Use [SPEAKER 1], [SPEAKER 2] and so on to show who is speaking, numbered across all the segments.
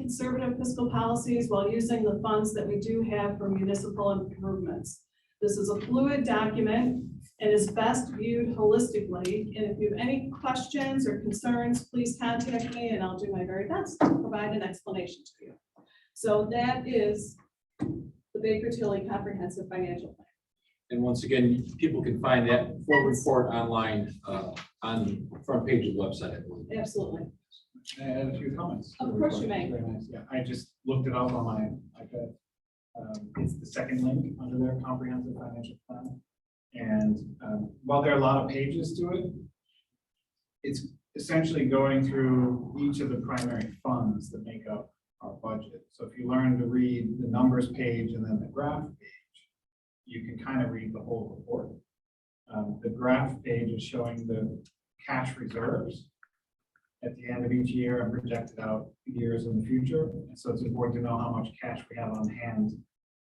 [SPEAKER 1] conservative fiscal policies while using the funds that we do have for municipal improvements. This is a fluid document and is best viewed holistically. And if you have any questions or concerns, please contact me and I'll do my very best to provide an explanation to you. So that is the Baker Tilly Comprehensive Financial Plan.
[SPEAKER 2] And once again, people can find that full report online, uh, on the front page of the website. I believe.
[SPEAKER 1] Absolutely.
[SPEAKER 3] Can I add a few comments.
[SPEAKER 1] Of course you may.
[SPEAKER 3] Very nice. Yeah, I just looked it up on my iPad. Um, It's the second link under their comprehensive financial plan. And um, while there are a lot of pages to it, it's essentially going through each of the primary funds that make up our budget. So if you learn to read the numbers page and then the graph page, you can kind of read the whole report. Um, The graph page is showing the cash reserves at the end of each year and projected out years in the future. And So it's important to know how much cash we have on hand.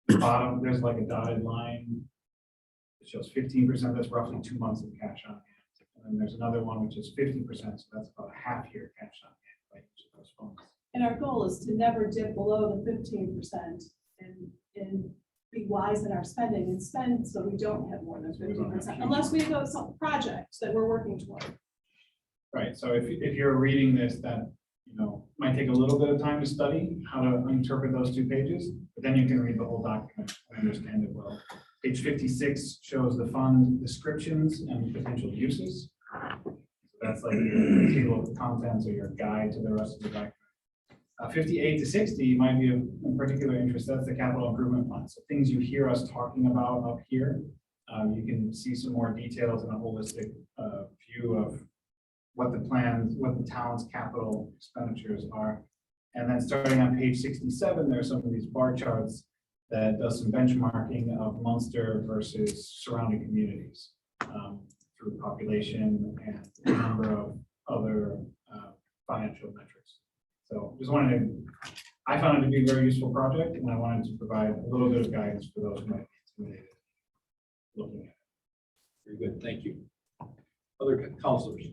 [SPEAKER 3] The Bottom, there's like a dotted line. It shows fifteen percent, that's roughly two months of cash on hand. And then there's another one which is fifty percent, so that's about a half year cash on hand, like each of those funds.
[SPEAKER 1] And our goal is to never dip below the fifteen percent and, and be wise in our spending and spend so we don't have more than
[SPEAKER 3] So we don't
[SPEAKER 1] fifteen
[SPEAKER 3] have
[SPEAKER 1] percent.
[SPEAKER 3] huge-
[SPEAKER 1] Unless we have some project that we're working toward.
[SPEAKER 3] Right, so if, if you're reading this, that, you know, might take a little bit of time to study how to interpret those two pages, but then you can read the whole document and understand it well. Page fifty-six shows the fund descriptions and potential uses. That's like your table of contents or your guide to the rest of the document. Uh, fifty-eight to sixty might be of of particular interest, that's the capital improvement plan, so things you hear us talking about up here. Um, you can see some more details and a holistic, uh, view of what the plans, what the town's capital expenditures are. And then starting on page sixty-seven, there are some of these bar charts that does some benchmarking of Munster versus surrounding communities um, through population and a number of other uh, financial metrics. So just wanted to, I found it to be a very useful project, and I wanted to provide a little bit of guidance for those who might be intimidated looking at it.
[SPEAKER 2] Very good, thank you. Other counselors?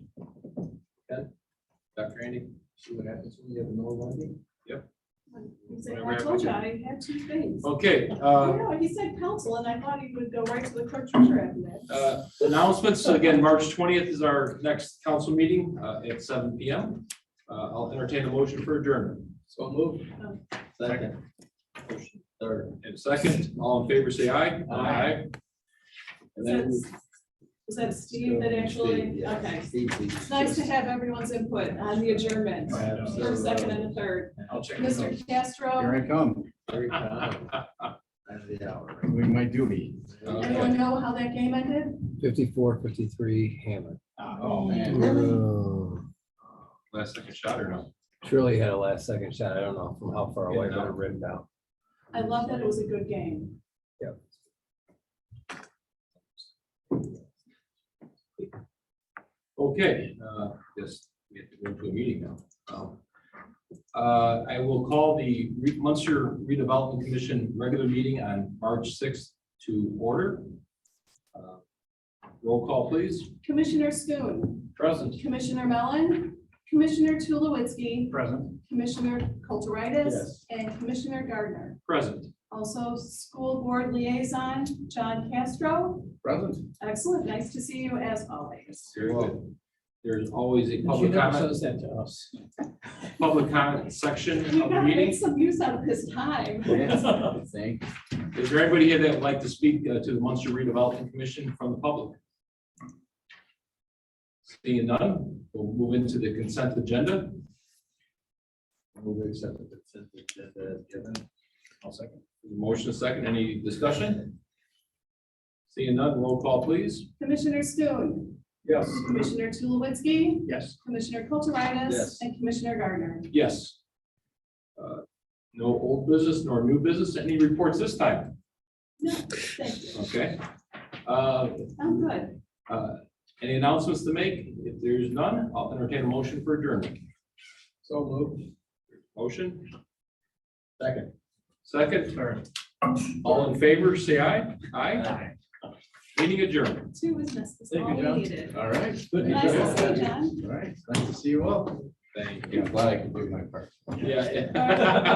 [SPEAKER 2] Ken? Dr. Andy? See what happens when you have no one?
[SPEAKER 1] He said,
[SPEAKER 2] Whatever
[SPEAKER 1] I told you I had two things.
[SPEAKER 2] Okay,
[SPEAKER 1] Oh,
[SPEAKER 2] uh,
[SPEAKER 1] no, he said council and I thought he would go right to the clerk treasurer after that.
[SPEAKER 2] uh, announcements, So again, March twentieth is our next council meeting, uh, at seven P M. Uh, I'll entertain a motion for adjournment. So moved. Second. Motion Third and second, all in favor, say aye. Aye. And then.
[SPEAKER 1] Is that- Is that Steve that actually, okay. It's nice to have everyone's input on the adjournment, first, second and the third.
[SPEAKER 3] I'll check. it out.
[SPEAKER 1] Mr. Castro,
[SPEAKER 4] Here I come,
[SPEAKER 5] Every uh, time. End of the hour.
[SPEAKER 4] doing my duty.
[SPEAKER 1] anyone know how that game ended?
[SPEAKER 5] Fifty-four, fifty-three, Hammond.
[SPEAKER 3] Oh, man.
[SPEAKER 5] Really?
[SPEAKER 2] Last second shot or no?
[SPEAKER 5] Truly had a last second shot. I don't know from how far away, but it rimmed out.
[SPEAKER 1] I love that it was a good game.
[SPEAKER 5] Yep.
[SPEAKER 2] Okay, uh, yes, we have to go to a meeting now. Um, Uh, I will call the Re- Munster redevelopment commission regular meeting on March sixth to order. Uh, Roll call, please.
[SPEAKER 1] Commissioner Schoon,
[SPEAKER 2] Present.
[SPEAKER 1] Commissioner Mellon, Commissioner Tulowitzki,
[SPEAKER 3] Present.
[SPEAKER 1] Commissioner Kulturitis,
[SPEAKER 2] Yes.
[SPEAKER 1] and Commissioner Gardner.
[SPEAKER 2] Present.
[SPEAKER 1] Also, school board liaison, John Castro.
[SPEAKER 2] Present.
[SPEAKER 1] Excellent, nice to see you as always.
[SPEAKER 2] Very good. There's always a public comment,
[SPEAKER 5] that to us.
[SPEAKER 2] public comment section
[SPEAKER 1] You
[SPEAKER 2] of the
[SPEAKER 1] gotta make
[SPEAKER 2] meeting.
[SPEAKER 1] some use out of this time.
[SPEAKER 4] Thank
[SPEAKER 2] Is there anybody here that would like to speak uh, to the Munster redevelopment commission from the public? Seeing none, we'll move into the consent agenda.
[SPEAKER 5] Move to accept the consent agenda as given.
[SPEAKER 3] I'll second.
[SPEAKER 2] Motion is second, any discussion? Seeing none, roll call please.
[SPEAKER 1] Commissioner Schoon,
[SPEAKER 3] Yes.
[SPEAKER 1] Commissioner Tulowitzki,
[SPEAKER 3] Yes.
[SPEAKER 1] Commissioner Kulturitis,
[SPEAKER 5] Yes.
[SPEAKER 1] and Commissioner Gardner.
[SPEAKER 2] Yes. Uh, No old business nor new business, any reports this time,
[SPEAKER 1] No, thank you.
[SPEAKER 2] okay? Uh,
[SPEAKER 1] I'm good.
[SPEAKER 2] uh, Any announcements to make? If there's none, I'll entertain a motion for adjournment. So moved. Motion? Second. Second,
[SPEAKER 3] Third.
[SPEAKER 2] all in favor, say aye. Aye. Meeting adjourned.
[SPEAKER 1] Two is necessary, all
[SPEAKER 4] Thank you,
[SPEAKER 1] we
[SPEAKER 4] John.
[SPEAKER 1] needed.
[SPEAKER 4] All right.
[SPEAKER 1] Nice to see you, John.
[SPEAKER 4] All right, nice to see you all. Thank
[SPEAKER 6] I'm
[SPEAKER 4] you.
[SPEAKER 6] glad I could do my part.
[SPEAKER 4] Yeah.
[SPEAKER 2] All right.